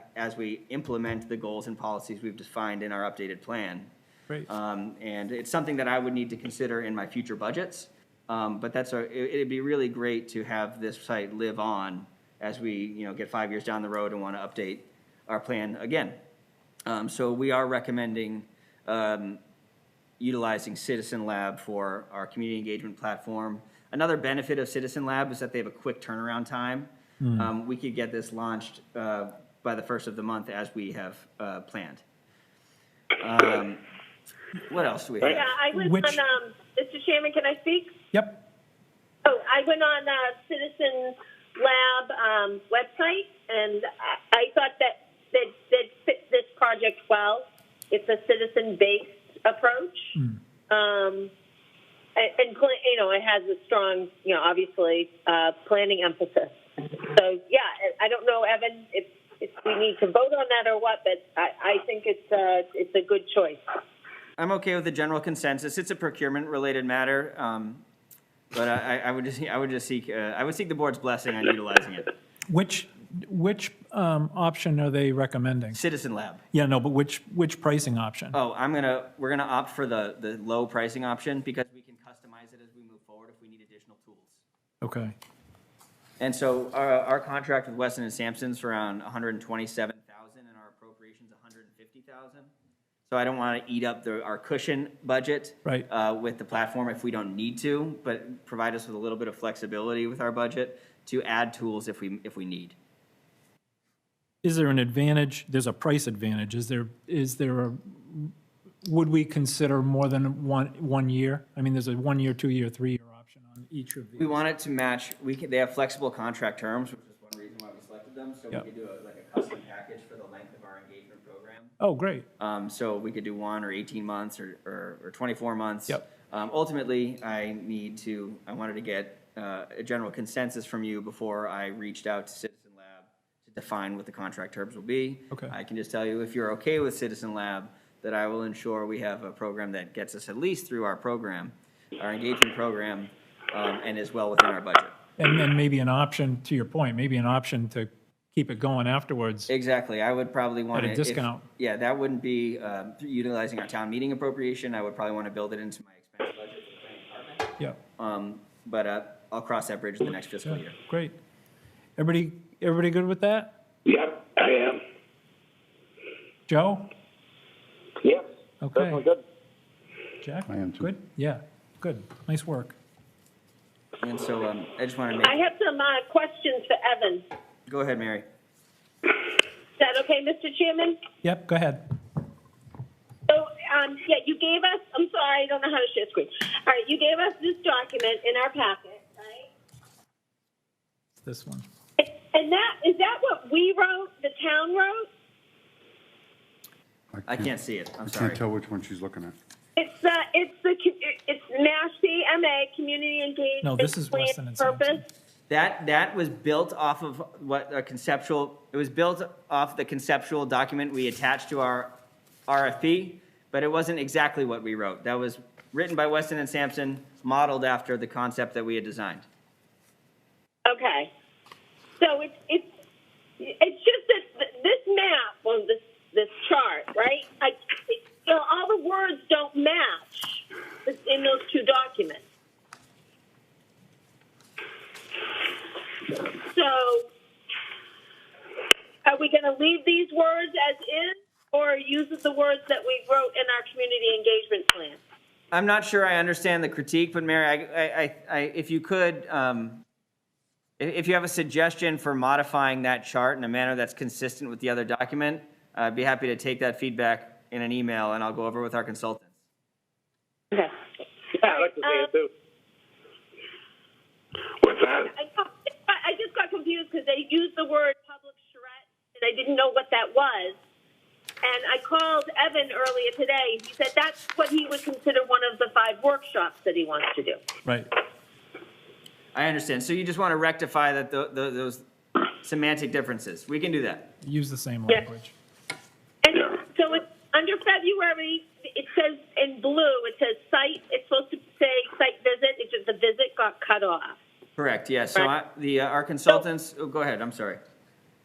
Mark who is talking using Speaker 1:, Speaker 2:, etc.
Speaker 1: as we implement the goals and policies we've defined in our updated plan.
Speaker 2: Great.
Speaker 1: Um, and it's something that I would need to consider in my future budgets. Um, but that's a, it, it'd be really great to have this site live on as we, you know, get five years down the road and want to update our plan again. Um, so we are recommending, um, utilizing Citizen Lab for our community engagement platform. Another benefit of Citizen Lab is that they have a quick turnaround time. Um, we could get this launched, uh, by the first of the month as we have, uh, planned. Um, what else do we have?
Speaker 3: Yeah, I went
Speaker 2: Which-
Speaker 3: on, um, Mr. Chairman, can I speak?
Speaker 2: Yep.
Speaker 3: Oh, I went on uh, Citizen Lab um, website, and I, I thought that that that fit this project well. It's a citizen-based approach, um, and, and pla- you know it has a strong, you know, obviously uh, planning emphasis. So yeah, I I don't know, Evan, if, if we need to vote on that or what, but I, I think it's uh, it's a good choice.
Speaker 1: I'm okay with the general consensus. It's a procurement-related matter, um, but I, I- I would just, I would just seek, uh, I would seek the board's blessing on utilizing it.
Speaker 2: Which, which um, option are they recommending?
Speaker 1: Citizen Lab.
Speaker 2: Yeah, no, but which, which pricing option?
Speaker 1: Oh, I'm gonna, we're gonna opt for the, the low pricing option because we can customize it as we move forward if we need additional tools.
Speaker 2: Okay.
Speaker 1: And so our, our contract with Weston and Sampson's around hundred and twenty-seven thousand and our appropriation's hundred and fifty thousand. So I don't wanna eat up the, our cushion budget.
Speaker 2: Right.
Speaker 1: Uh, with the platform if we don't need to, but provide us with a little bit of flexibility with our budget to add tools if we, if we need.
Speaker 2: Is there an advantage, there's a price advantage, is there, is there a, would we consider more than one, one year? I mean, there's a one-year, two-year, three-year option on each of
Speaker 1: We
Speaker 2: these.
Speaker 1: want it to match, we can, they have flexible contract terms, which is one reason why we selected them, so we
Speaker 2: Yep.
Speaker 1: could do a- like a custom package for the length of our engagement program.
Speaker 2: Oh, great,
Speaker 1: Um, so we could do one or eighteen months or, or, or twenty-four months.
Speaker 2: Yep.
Speaker 1: Um, ultimately, I need to, I wanted to get, uh, a general consensus from you before I reached out to Citizen Lab to define what the contract terms will be.
Speaker 2: Okay.
Speaker 1: I can just tell you, if you're okay with Citizen Lab, that I will ensure we have a program that gets us at least through our program, our engagement program, um, and is well within our budget.
Speaker 2: and then maybe an option, to your point, maybe an option to keep it going afterwards.
Speaker 1: Exactly, I would probably want to.
Speaker 2: a discount.
Speaker 1: Yeah, that wouldn't be um, utilizing our town meeting appropriation, I would probably want to build it into my expense budget for the planning department.
Speaker 2: Yeah,
Speaker 1: Um, But uh, I'll cross that bridge in the next fiscal year.
Speaker 2: great. Everybody, everybody good with that?
Speaker 4: Yep, I am.
Speaker 2: Joe?
Speaker 4: Yep.
Speaker 2: Okay.
Speaker 4: Definitely good.
Speaker 2: Jack?
Speaker 5: I am too.
Speaker 2: Good, yeah, good, nice work.
Speaker 1: And so um, I just want to
Speaker 3: I
Speaker 1: make,
Speaker 3: have some uh, questions for Evan. Is
Speaker 1: go ahead, Mary.
Speaker 3: that okay, Mr. Chairman?
Speaker 2: Yep, go ahead.
Speaker 3: So, um, yeah, you gave us, I'm sorry, I don't know how to share screen. All right, you gave us this document in our packet, right?
Speaker 2: It's This one.
Speaker 3: And that, is that what we wrote, the town wrote?
Speaker 1: I can't see it, I'm
Speaker 5: I
Speaker 1: sorry.
Speaker 5: can't tell which one she's looking at.
Speaker 3: It's, uh, it's the, co- it's Mashpee MA Community Engagement.
Speaker 2: No, this is
Speaker 3: Plan
Speaker 2: Weston and
Speaker 3: Purpose.
Speaker 2: Sampson.
Speaker 1: That, that was built off of what a conceptual, it was built off the conceptual document we attached to our RFP, but it wasn't exactly what we wrote. That was written by Weston and Sampson, modeled after the concept that we had designed.
Speaker 3: Okay. So it's, it's, it's just that th- this map on this, this chart, right? I, it, you know, all the words don't match in those two documents. So are we going to leave these words as is or use the words that we wrote in our community engagement plan?
Speaker 1: I'm not sure I understand the critique, but Mary, I, I, I- I, if you could, um, i- if you have a suggestion for modifying that chart in a manner that's consistent with the other document, I'd be happy to take that feedback in an email and I'll go over with our consultants.
Speaker 3: Okay.
Speaker 4: Yeah, I like to see it too. What's that?
Speaker 3: I, I just got confused because they used the word public charrette, and I didn't know what that was. And I called Evan earlier today. He said that's what he would consider one of the five workshops that he wants to do.
Speaker 2: Right,
Speaker 1: I understand. So you just want to rectify that, tho- tho- those semantic differences. We can do that.
Speaker 2: use the same
Speaker 3: Yeah.
Speaker 2: language.
Speaker 3: And so it's under February. It says in blue. It says site. It's supposed to say site visit. It's just the visit got cut off.
Speaker 1: Correct, yes. So I, the, uh, our consultants, oh, go ahead, I'm sorry.